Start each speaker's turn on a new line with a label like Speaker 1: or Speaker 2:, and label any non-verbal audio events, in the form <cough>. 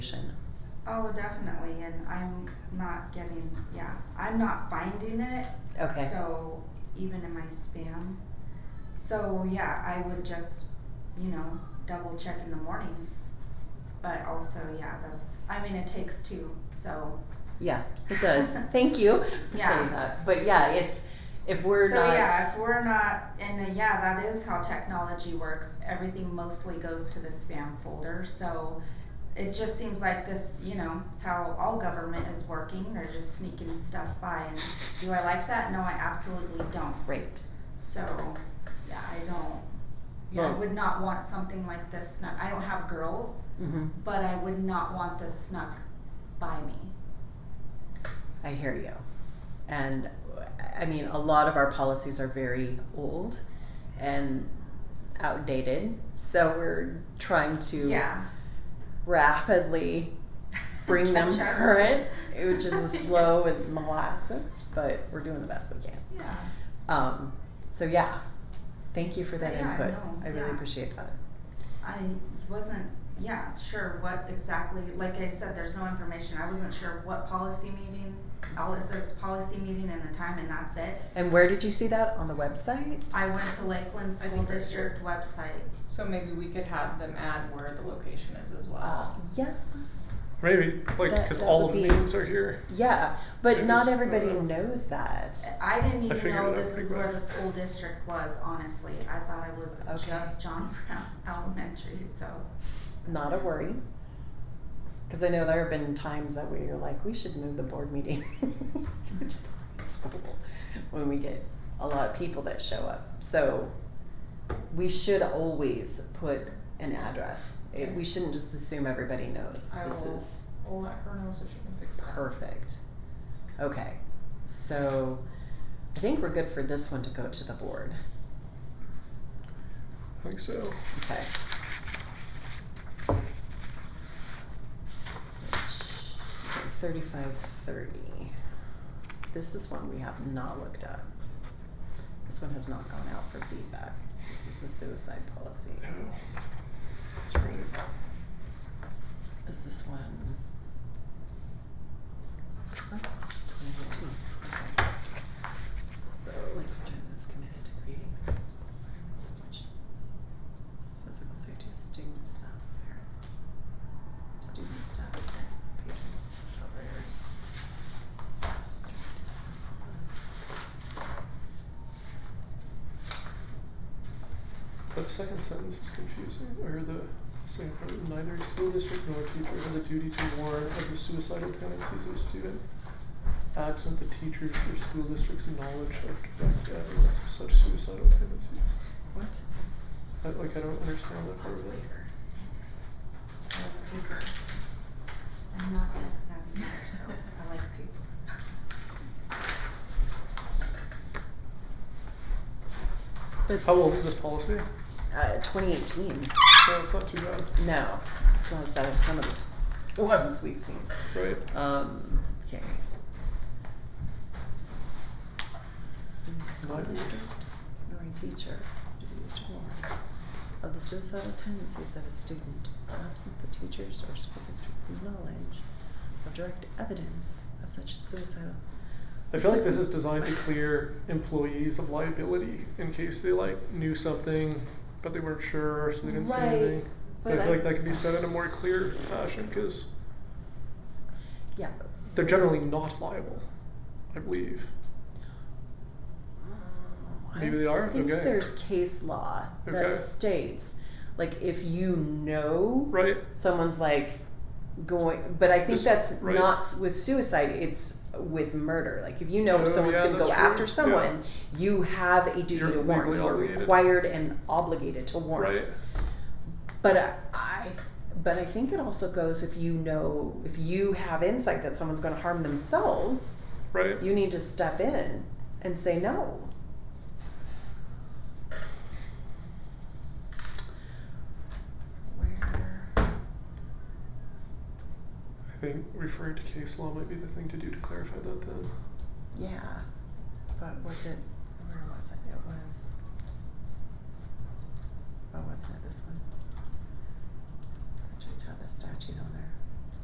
Speaker 1: information.
Speaker 2: Oh, definitely, and I'm not getting, yeah, I'm not finding it.
Speaker 1: Okay.
Speaker 2: So, even in my spam. So, yeah, I would just, you know, double check in the morning. But also, yeah, that's, I mean, it takes two, so.
Speaker 1: Yeah, it
Speaker 2: <laughs>
Speaker 1: does. Thank you for
Speaker 2: Yeah.
Speaker 1: saying that. But yeah, it's if we're
Speaker 2: so,
Speaker 1: not
Speaker 2: yeah, if we're not, and uh, yeah, that is how technology works. Everything mostly goes to the spam folder. So it just seems like this, you know, it's how all government is working. They're just sneaking stuff by. And do I like that? No, I absolutely don't.
Speaker 1: right.
Speaker 2: So, yeah, I don't. Yeah, I
Speaker 1: Well-
Speaker 2: would not want something like this snuck. I don't have girls,
Speaker 1: hmm
Speaker 2: but I would not want this snuck by me.
Speaker 1: I hear you. And I mean, a lot of our policies are very old and outdated. So we're trying to
Speaker 2: yeah.
Speaker 1: rapidly
Speaker 2: <laughs>
Speaker 1: bring them
Speaker 2: Catch up.
Speaker 1: current, which is as
Speaker 2: <laughs> Yeah.
Speaker 1: slow as molasses, but we're doing the best we can.
Speaker 2: Yeah.
Speaker 1: Um, so yeah, thank you for that
Speaker 2: Yeah, I
Speaker 1: input.
Speaker 2: know.
Speaker 1: I really
Speaker 2: Yeah.
Speaker 1: appreciate that.
Speaker 2: I wasn't, yeah, sure what exactly, like I said, there's no information. I wasn't sure what policy meeting, all it says policy meeting and the time and that's it.
Speaker 1: And where did you see that on the website?
Speaker 2: I went to Lakeland
Speaker 3: I
Speaker 2: School
Speaker 3: think that's
Speaker 2: District website.
Speaker 3: So maybe we could have them add where the location is as
Speaker 1: Uh,
Speaker 3: well.
Speaker 1: yeah,
Speaker 4: Maybe, like,
Speaker 1: That-
Speaker 4: because
Speaker 1: that
Speaker 4: all
Speaker 1: would
Speaker 4: of the
Speaker 1: be-
Speaker 4: meetings are here.
Speaker 1: yeah, but
Speaker 4: It
Speaker 1: not
Speaker 4: was,
Speaker 1: everybody
Speaker 4: uh,
Speaker 1: knows that.
Speaker 2: I didn't
Speaker 4: I
Speaker 2: even
Speaker 4: figured
Speaker 2: know
Speaker 4: it out
Speaker 2: this
Speaker 4: pretty
Speaker 2: is where the
Speaker 4: quick.
Speaker 2: school district was, honestly. I thought it was
Speaker 1: Okay.
Speaker 2: just John <laughs> Brown Elementary, so.
Speaker 1: Not a worry. Because I know there have been times that we were like, we should move the board meeting <laughs> to the school when we get a lot of people that show up. So we should always put an address. It, we shouldn't just assume everybody knows.
Speaker 3: I
Speaker 1: this
Speaker 3: will-
Speaker 1: is
Speaker 3: We'll let her know so she can fix that.
Speaker 1: Perfect. Okay, so I think we're good for this one to go to the board.
Speaker 4: I think so.
Speaker 1: Okay. Thirty-five thirty. This is one we have not looked at. This one has not gone out for feedback. This is the suicide policy.
Speaker 4: Oh, That's right.
Speaker 1: Is this one? Oh, 2018. Okay. So, like, return is committed to creating programs that environments in which physical safety of students, staff, parents, students, staff, parents, and patrons shall vary. District is responsible.
Speaker 4: The second sentence is confusing, or the second part, neither school district nor teacher has a duty to warn of the suicidal tendencies of a student, absent the teacher's or school district's knowledge of direct evidence of such suicidal tendencies.
Speaker 1: What?
Speaker 4: I, like, I don't understand that part of it.
Speaker 2: I like paper. I'm not tech savvy, so I like paper.
Speaker 1: But
Speaker 4: How old
Speaker 1: s-
Speaker 4: is this policy?
Speaker 1: Uh, twenty eighteen.
Speaker 4: No, it's not too bad,
Speaker 1: No, it's not as bad as some of the s- ones we've seen.
Speaker 4: right?
Speaker 1: Um, okay.
Speaker 4: Neither
Speaker 1: Nor a teacher to be warned of the suicidal tendencies of a student, absent the teacher's or school district's knowledge of direct evidence of such suicidal.
Speaker 4: I feel like this is designed to clear employees of liability in case they like knew something, but they weren't sure, so they didn't
Speaker 1: Right,
Speaker 4: say anything. But I
Speaker 1: but
Speaker 4: feel
Speaker 1: I-
Speaker 4: like that can be said in a more clear fashion because
Speaker 1: Yeah.
Speaker 4: they're generally not liable, I believe. Maybe they are?
Speaker 1: I think
Speaker 4: Okay.
Speaker 1: there's case law that
Speaker 4: Okay.
Speaker 1: states, like, if you know.
Speaker 4: Right?
Speaker 1: someone's like going but i think
Speaker 4: This-
Speaker 1: that's
Speaker 4: right.
Speaker 1: not s- with suicide it's with murder like if you know
Speaker 4: Oh,
Speaker 1: someone's
Speaker 4: yeah,
Speaker 1: going to go
Speaker 4: that's true.
Speaker 1: after
Speaker 4: Yeah.
Speaker 1: someone you have a duty
Speaker 4: You're
Speaker 1: to warn
Speaker 4: legally
Speaker 1: you're
Speaker 4: obligated.
Speaker 1: required and obligated to warn
Speaker 4: Right?
Speaker 1: but I, I but i think it also goes if you know if you have insight that someone's going to harm themselves
Speaker 4: Right?
Speaker 1: you need to step in and say no where
Speaker 4: I think referring to case law might be the thing to do to clarify that then.
Speaker 1: Yeah, but was it, where was it? It was, oh, wasn't it this one? I Just have the statute on there.